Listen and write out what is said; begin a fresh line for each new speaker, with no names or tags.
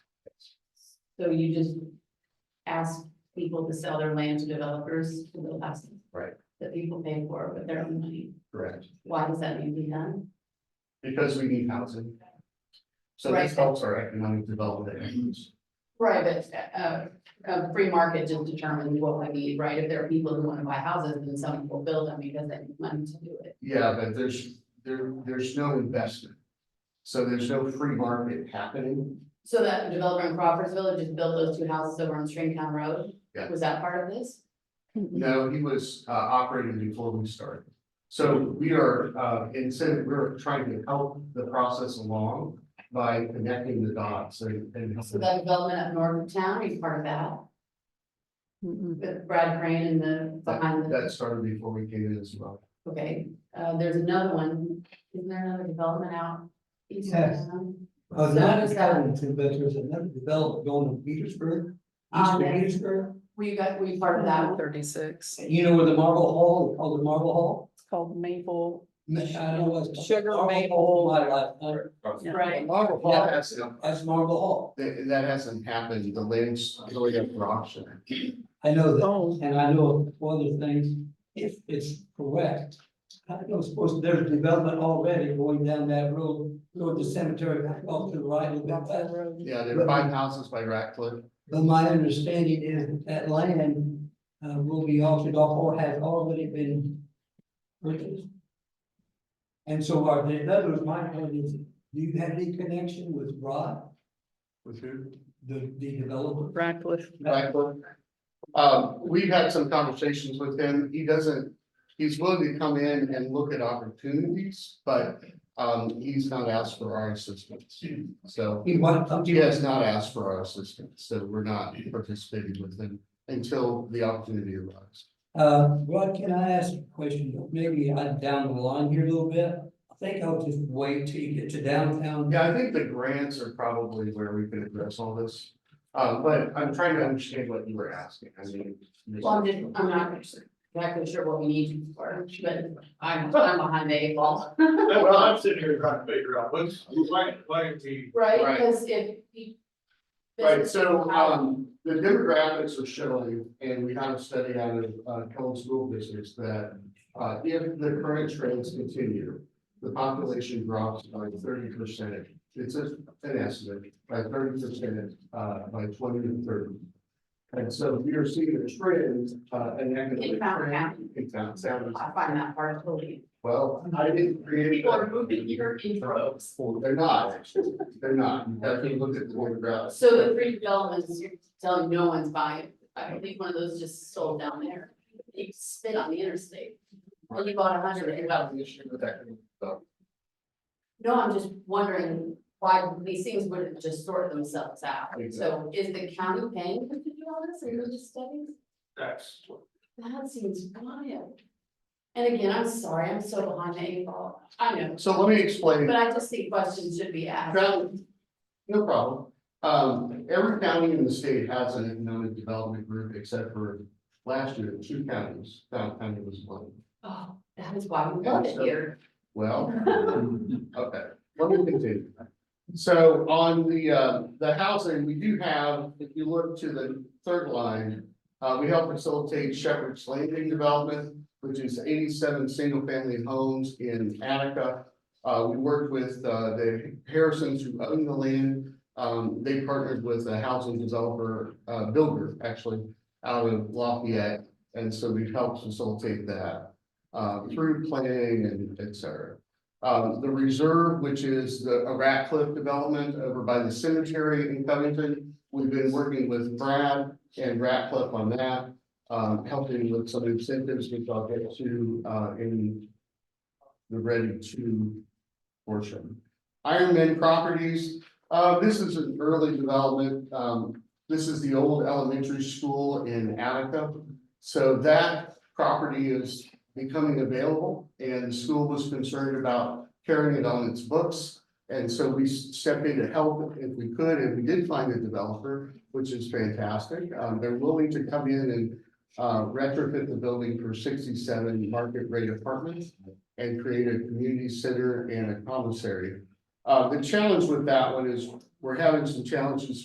So you just ask people to sell their land to developers to the last.
Right.
That people pay for with their own money.
Correct,
Why does that need to be done?
because we need housing. So
Right.
this helps our economic development efforts.
Right, but, uh, a free market just determines what we need, right? If there are people who wanna buy houses, then someone will build them because they need money to do it.
Yeah, but there's, there, there's no investment. So there's no free market happening.
So that developer in Crawfordsville just built those two houses over on Stringtown Road?
Yeah.
Was that part of this?
Mm-hmm,
No, he was, uh, operating before we started. So we are, uh, instead, we're trying to help the process along by connecting the dots and. and-
So that development up north of town, he's part of that
mm-hmm.
with Brad Crane and the behind the.
That started before we came in as well.
Okay, uh, there's another one, isn't there another development out? east of
Yes.
town?
Uh,
So
not
is
in
that-
Covington, but there's another development going to Petersburg, east
Oh,
Um,
of Petersburg.
Were you guys, were you part of
Mm-hmm.
that?
Thirty-six, it's
You know where the Marble Hall, called the Marble Hall?
called Maple.
I don't know what's.
Sugar
Marble
Maple.
Hall, My life,
Right,
Marble Hall has,
that's Marble Hall.
that, that hasn't happened, the land's really up for auction.
I know that,
Oh,
and I know of other things, if it's correct. I know it's supposed, there's development already going down that road, toward the cemetery, back off to the right a little bit
that's that
west.
road.
Yeah, there are five houses by Ratcliffe.
But my understanding is that that land uh will be auctioned off or has already been purchased. And so are there, in other words, my point is, do you have any connection with Rod,
With who?
the the developer?
Radcliffe.
Ratcliffe. Um, we've had some conversations with him. He doesn't, he's willing to come in and look at opportunities, but um, he's not asked for our assistance. So
He wants something.
he has not asked for our assistance, so we're not participating with him until the opportunity arrives.
Uh, Rod, can I ask a question? Maybe I'm down the line here a little bit. I think I'll just wait till you get to downtown.
Yeah, I think the grants are probably where we could address all this. Uh, but I'm trying to understand what you were asking. I mean.
well, I'm just, I'm not exactly sure what we need for, but I'm, I'm behind the eight ball.
Well, I'm sitting here trying to figure out what's, why, why are we,
Right,
Right.
because if. you-
Right, so, um, the demographics are showing, and we have a study out of, uh, Kelly School Districts that, uh, if the current trends continue, the population drops by thirty percent. It's a- an estimate, by thirty percent, uh, by twenty and thirty. And so we are seeing a trend, uh, an economic
In Fountain
trend.
County,
In Fountain County.
I find that hard to believe.
Well, I didn't create.
People are
that.
moving here in droves.
Well, They're not, actually. they're not. You have to look at the demographics.
So the three developments, you're telling no one's buying, I believe one of those just sold down there, you spit on the interstate. And you bought a
I'm
hundred,
gonna
you
hang
bought
out with you with that.
No, I'm just wondering why these things wouldn't just sort themselves out. So is the county paying for to do all this and religious studies?
that's,
That seems wild. And again, I'm sorry, I'm so behind the eight ball. I know,
So let me explain.
but I just think questions should be asked.
Crown- No problem. Um, every county in the state has an economic development group except for last year, two counties, Fountain County was one.
Oh, that is why we love it here.
Well, okay, let me continue. So on the, uh, the housing, we do have, if you look to the third line, uh, we help facilitate Shepherd's Landing development, which is eighty-seven single-family homes in Attica. Uh, we worked with, uh, the Harrisons who own the land. Um, they partnered with a housing developer, uh, builder, actually, out of Lafayette. And so we've helped facilitate that uh, through planning and et cetera. Um, the reserve, which is the a Ratcliffe development over by the cemetery in Covington. We've been working with Brad and Ratcliffe on that, um, helping with some incentives, which I'll get to, uh, in the ready to portion. Ironman Properties, uh, this is an early development. Um, this is the old elementary school in Attica. So that property is becoming available and the school was concerned about carrying it on its books. And so we stepped in to help if we could, and we did find a developer, which is fantastic. Um, they're willing to come in and uh, retrofit the building for sixty-seven market rate apartments and create a community center and a commissary. Uh, the challenge with that one is we're having some challenges